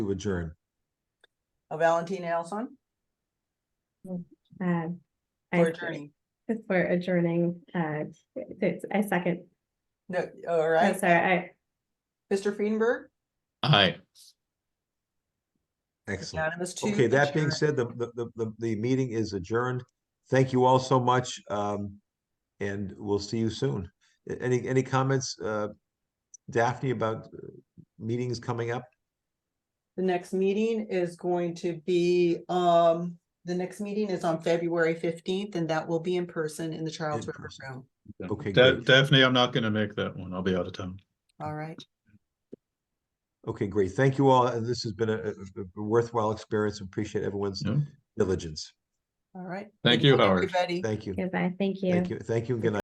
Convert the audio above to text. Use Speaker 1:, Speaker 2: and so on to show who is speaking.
Speaker 1: to adjourn.
Speaker 2: Uh, Valentina Allison
Speaker 3: Uh, I-
Speaker 2: for adjourning.
Speaker 3: For adjourning, uh, it's, I second,
Speaker 2: No, all
Speaker 3: I'm
Speaker 2: right,
Speaker 3: sorry, I,
Speaker 2: Mr. Friedenberg,
Speaker 4: Aye.
Speaker 1: Excellent.
Speaker 2: unanimous two.
Speaker 1: Okay, that being
Speaker 2: adjourn.
Speaker 1: said, the, the, the, the, the meeting is adjourned. Thank you all so much. Um, and we'll see you soon. A- Any, any comments, uh, Daphne about uh, meetings coming up?
Speaker 2: The next meeting is going to be, um, the next meeting is on February fifteenth, and that will be in person in the Charles
Speaker 1: In
Speaker 2: River
Speaker 1: person.
Speaker 2: Room.
Speaker 1: Okay,
Speaker 4: Da-
Speaker 1: great.
Speaker 4: Daphne, I'm not gonna make that one. I'll be out of town.
Speaker 2: All right,
Speaker 1: Okay, great. Thank you all. And this has been a, a- a worthwhile experience. Appreciate everyone's
Speaker 4: Yeah.
Speaker 1: diligence.
Speaker 2: all right.
Speaker 4: Thank
Speaker 2: Good
Speaker 4: you,
Speaker 2: night,
Speaker 4: Howard.
Speaker 2: Everybody.
Speaker 1: Thank you.
Speaker 3: goodbye, thank you.
Speaker 1: Thank you. Thank you. and Good night.